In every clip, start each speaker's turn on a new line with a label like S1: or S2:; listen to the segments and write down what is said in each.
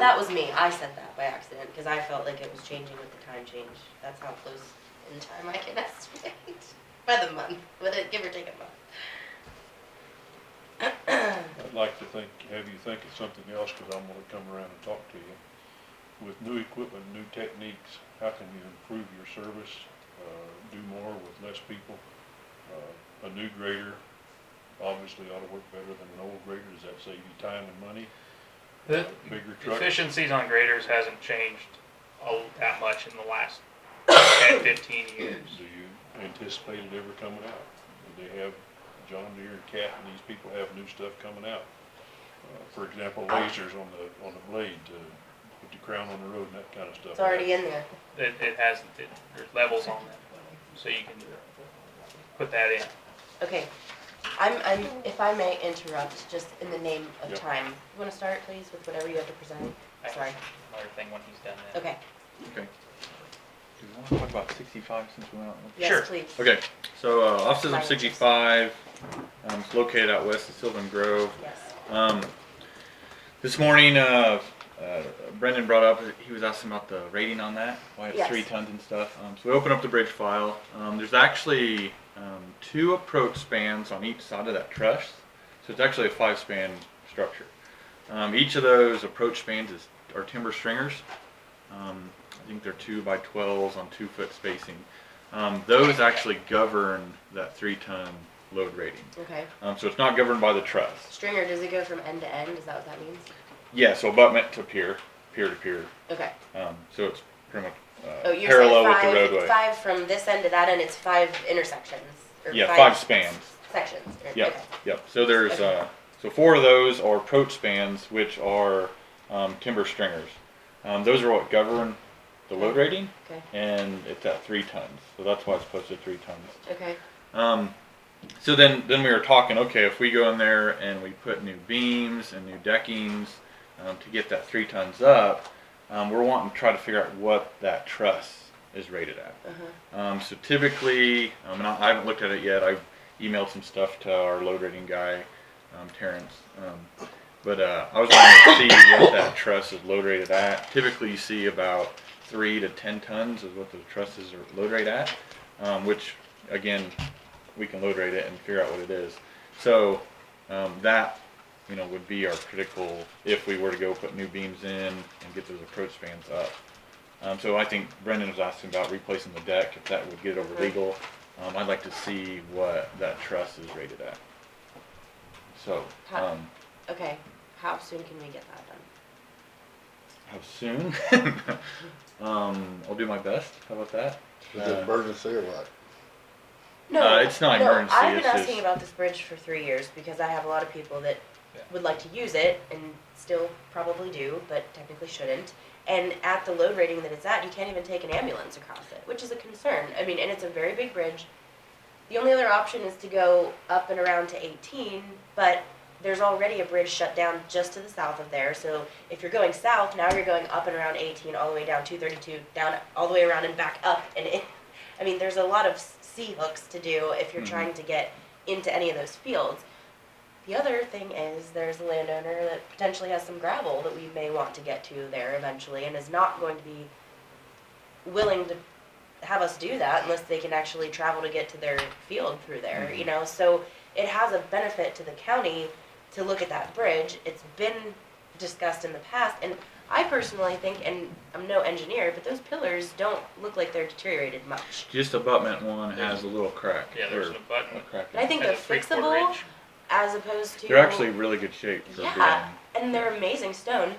S1: That was me, I said that by accident, because I felt like it was changing with the time change, that's how close in time I can estimate, by the month, with it, give or take a month.
S2: I'd like to think, have you think of something else, cause I'm gonna come around and talk to you. With new equipment, new techniques, how can you improve your service, uh, do more with less people? Uh, a new grader obviously ought to work better than an old grader, does that save you time and money?
S3: The
S2: Bigger truck?
S3: efficiencies on graders hasn't changed all that much in the last 10, 15 years.
S2: Do you anticipate it ever coming out? Do they have John Deere and Cat and these people have new stuff coming out? Uh, For example, lasers on the, on the blade to put the crown on the road and that kind of stuff.
S1: It's already in there.
S3: It, it hasn't, it, there's levels on that, so you can put that in.
S1: Okay, I'm, I'm, if I may interrupt, just in the name of
S2: Yeah.
S1: time, you wanna start, please, with whatever you have to present?
S3: I-
S1: Sorry,
S3: Another thing when he's done that.
S1: okay,
S4: Okay. Do we want to talk about sixty-five since we went out?
S3: Sure.
S1: yes, please.
S4: Okay, so uh, offices
S1: Fire.
S4: of sixty-five, um, it's located out west of Sylvan Grove.
S1: Yes,
S4: Um, this morning, uh, uh, Brendan brought up, he was asking about the rating on that, why it's
S1: Yes.
S4: three tons and stuff. Um, so we opened up the bridge file. Um, there's actually um, two approach spans on each side of that truss, so it's actually a five span structure. Um, each of those approach spans is, are timber stringers. Um, I think they're two by 12s on two foot spacing. Um, those actually govern that three ton load rating.
S1: okay.
S4: Um, so it's not governed by the truss.
S1: Stringer, does it go from end to end, is that what that means?
S4: Yeah, so abutment to pier, pier to pier.
S1: Okay.
S4: Um, so it's pretty much uh,
S1: Oh, you're
S4: parallel
S1: saying five,
S4: with the roadway.
S1: five from this end to that end, it's five intersections? or
S4: yeah, five spans.
S1: Sections, or,
S4: Yep,
S1: okay.
S4: yep. So there's
S1: Okay.
S4: uh, so four of those are approach spans, which are um, timber stringers. Um, those are what govern the load
S1: Mm-hmm.
S4: rating,
S1: Okay,
S4: and it's at three tons. So that's why it's posted three tons.
S1: okay,
S4: Um, so then, then we were talking. Okay, if we go in there and we put new beams and new deckings um, to get that three tons up, um, we're wanting to try to figure out what that truss is rated at.
S1: uh-huh,
S4: Um, so typically, um, and I, I haven't looked at it yet. I've emailed some stuff to our load rating guy, um, Terrence. Um, but uh, I was wanting to see what that truss is load rated at. Typically, you see about three to ten tons is what the trusses are load rate at, um, which again, we can load rate it and figure out what it is. So um, that you know would be our critical if we were to go put new beams in and get those approach spans up. Um, so I think Brendan was asking about replacing the deck, if that would get over
S1: Mhm.
S4: legal. Um, I'd like to see what that truss is rated at. So,
S1: How-
S4: um,
S1: okay. How soon can we get that done?
S4: how soon? um, I'll do my best. How about that?
S5: Is it
S4: Uh,
S5: emergency or what?
S1: No,
S4: Uh, it's not
S1: no,
S4: emergency,
S1: I've been
S4: it's
S1: asking
S4: just-
S1: about this bridge for three years, because I have a lot of people that
S3: Yeah.
S1: would like to use it, and still probably do, but technically shouldn't. And at the load rating that it's at, you can't even take an ambulance across it, which is a concern, I mean, and it's a very big bridge. The only other option is to go up and around to eighteen, but there's already a bridge shut down just to the south of there, so if you're going south, now you're going up and around eighteen, all the way down two thirty-two, down, all the way around and back up, and it, I mean, there's a lot of s- C hooks to do if you're
S4: Mhm.
S1: trying to get into any of those fields. The other thing is, there's a landowner that potentially has some gravel that we may want to get to there eventually, and is not going to be willing to have us do that unless they can actually travel to get to their field through there,
S4: Mm-hmm.
S1: you know, so it has a benefit to the county to look at that bridge, it's been discussed in the past, and I personally think, and I'm no engineer, but those pillars don't look like they're deteriorated much.
S4: Just abutment one has a little crack.
S3: Yeah, there's
S4: or
S3: an
S4: a
S3: abutment.
S4: crack.
S1: And I think
S3: Has
S1: they're
S3: a three-quarter
S1: fixable
S3: inch.
S1: as opposed to.
S4: They're actually really good shape for
S1: Yeah, and they're amazing stone.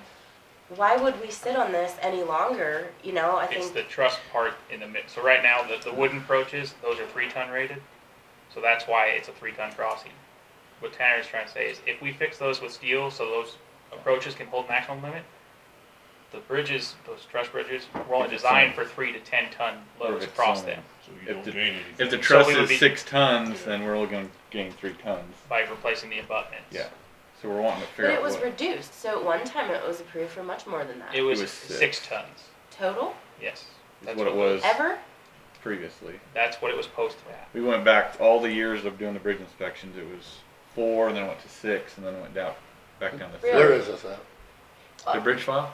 S1: Why would we sit on this any longer, you know, I
S3: It's
S1: think,
S3: the truss part in the mid, so right now, the, the wooden approaches, those are three ton rated, so that's why it's a three ton crossing. What Tanner's trying to say is, if we fix those with steel, so those approaches can hold maximum limit, the bridges, those truss bridges, were only
S4: If it's
S3: designed for three to ten ton
S4: Or if
S3: loads
S4: it's
S3: across
S4: only-
S3: them,
S2: So
S4: If
S2: you don't
S4: the-
S2: gain anything.
S4: If the
S3: So
S4: truss
S3: we would
S4: is
S3: be-
S4: six tons, then we're only going to gain three tons.
S3: by replacing the abutments.
S4: Yeah. So we're wanting to
S1: but
S4: figure
S1: it
S4: out
S1: was
S4: what.
S1: reduced, so at one time it was approved for much more than that.
S3: It was
S4: was
S3: six
S4: six.
S3: tons,
S1: Total,
S3: yes.
S4: Is
S3: That's
S4: what it was
S1: ever?
S4: previously.
S3: That's what it was posted at.
S4: We went back all the years of doing the bridge inspections. It was four, and then it went to six, and then it went down back down to
S1: Really?
S5: Where
S4: three.
S5: is this at?
S1: file.
S4: The bridge file?